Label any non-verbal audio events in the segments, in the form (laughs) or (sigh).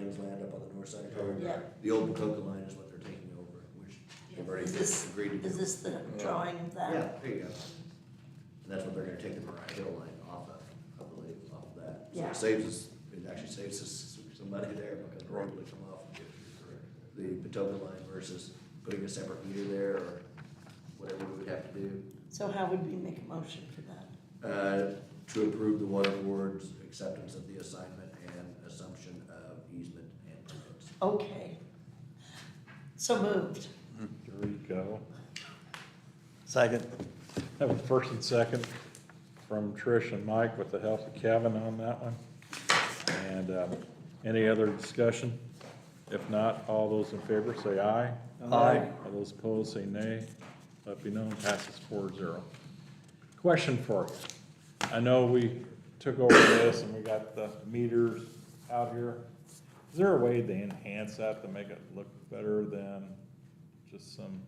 County's land up on the north side of town. Yeah. The old Potoka line is what they're taking over, which they've already Is this- agreed to Is do. this the drawing of that? Yeah, there you go. And that's what they're gonna take the Mariah Hill line off of, I believe, off of that. So Yeah. it saves us, it actually saves us some money there because we're able to come off the Potoka line versus putting a separate meter there or whatever we would have to do. So how would we make a motion for that? Uh, to approve the water board's acceptance of the assignment and assumption of easement and permits. Okay. So moved. There you go. Second. Have a first and second from Trish and Mike with the help of Kevin on that one. And um, any other discussion? If not, all those in favor say aye. Aye. All those opposed say nay. Let be known, passes four zero. Question for you. I know we took over this and we got the meters out here. Is there a way to enhance that to make it look better than just some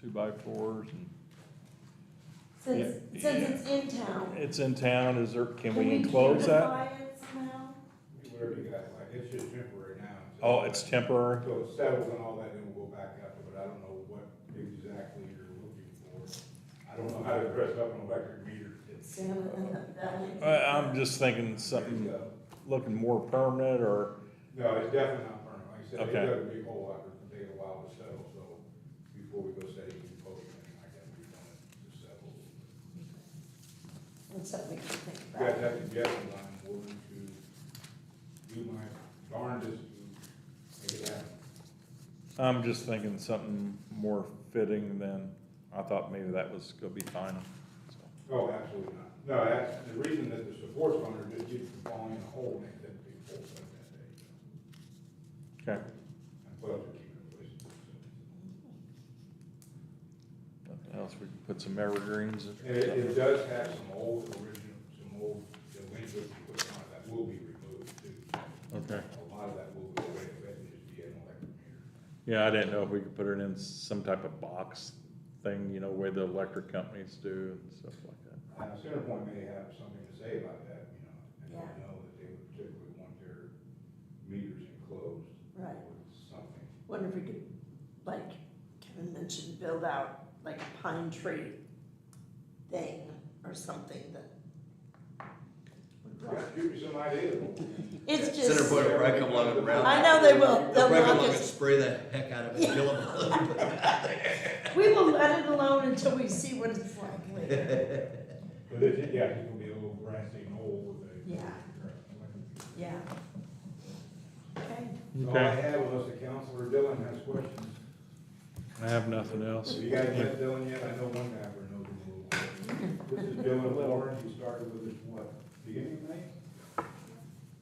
two-by-fours and Since, Yeah. since it's in town. it's in town, is there, can we Can enclose that? beautify it somehow? We already got, like, it's just temporary now. until- Oh, it's temporary? So it settles and all that, then we'll go back up, but I don't know what exactly you're looking for. I don't know how to dress up an electric meter. It's- Sam, that would- I, I'm just thinking something No, looking more permanent or, uh, it's definitely not permanent, like I said, it Okay. doesn't be a whole lot, it'll take a while to settle, so before we go setting and post, I think I gotta be done to settle. That's something we can think You guys about. have suggestions, I'm willing to do my darndest to make it happen. I'm just thinking something more fitting than, I thought maybe that was gonna be final. so. Oh, absolutely not. No, that's, the reason that the support's on there just keeps falling in a hole and it doesn't be full of that day. Okay, I'm glad they're keeping it in place. nothing else, we can put some evergreens. or And it, it something. does have some old original, some old delinquent equipment that will be removed too. Okay, A lot of that will go away, but it'll just be an electric meter. yeah, I didn't know if we could put it in some type of box thing, you know, where the electric companies do and stuff like that. Now, Centerpoint may have something to say about that, you know, and I Yeah. know that they would particularly want their meters enclosed Right. with something. Wonder if we could, like Kevin mentioned, build out like a pine tree thing or something that. would Try work. to give me some idea. (laughs) It's Yeah, Center just, point will probably come along and round. I know they will, They'll they'll probably come knock along and us, spray the heck out of it, kill them. we will let it alone until we see what it's like later. But it, yeah, it's gonna be a little grassy knoll with a. Yeah. Yeah. Okay, All Oh, I Okay, had was the counselor Dylan has questions. I have nothing else. Have you guys met Dylan yet? I know one guy we knows him a little bit. This is Dylan Warren. He started with us, what, beginning of May?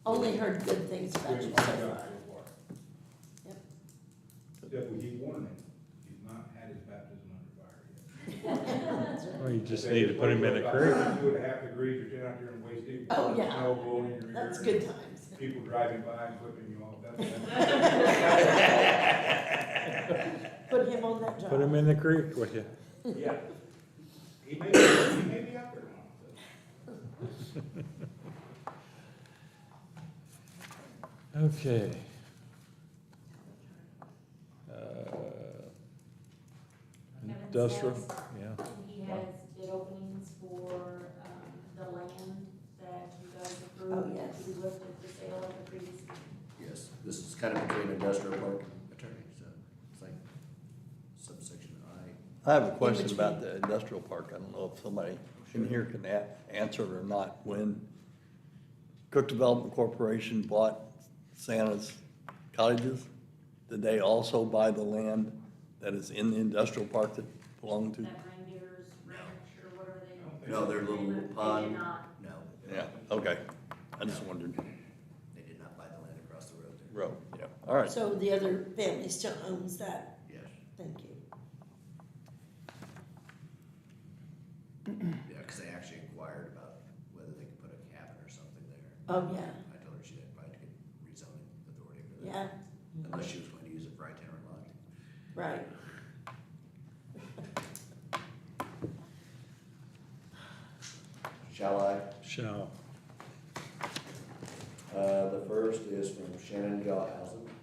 only heard good things We about you haven't so found out so far. far. Yep. Except we keep warning him. He's not had his baptism under fire yet. Well, Oh, you just need to put him in a creek. About Two and a half degrees, you're out there and wasting. Oh, yeah. Snow blowing in your ear. (laughs) That's good times. People driving by and flipping you off. That's- (laughs) Put him on that job. Put him in the creek with you. Yeah. He may, be- he may be out there now. Okay. Uh, Industrial, yeah, And he has bid openings for, um, the land that you guys approved. Oh, yes. To be listed for sale at the previous meeting. Yes, this is kind of between industrial park and attorney, so it's like subsection I. I have a In question between. about the industrial park. I don't know if somebody in here can a- answer it or not. When Cook Development Corporation bought Santa's cottages, did they also buy the land that is in the industrial park that belonged to? That reindeer's ranch or whatever they. No, their little They pond. did not. No, Yeah, okay. I just wondered. they did not buy the land across the road there. Row, yeah, all right. So the other family still owns that, Yes, thank you. yeah, because they actually inquired about whether they could put a cabin or something there. Oh, yeah, I told her she had probably to get rezoning authority for that. yeah, Unless she was going to use it for itinerant lodging. right. Shall I? shall. Uh, the first is from Shannon Gawhausen.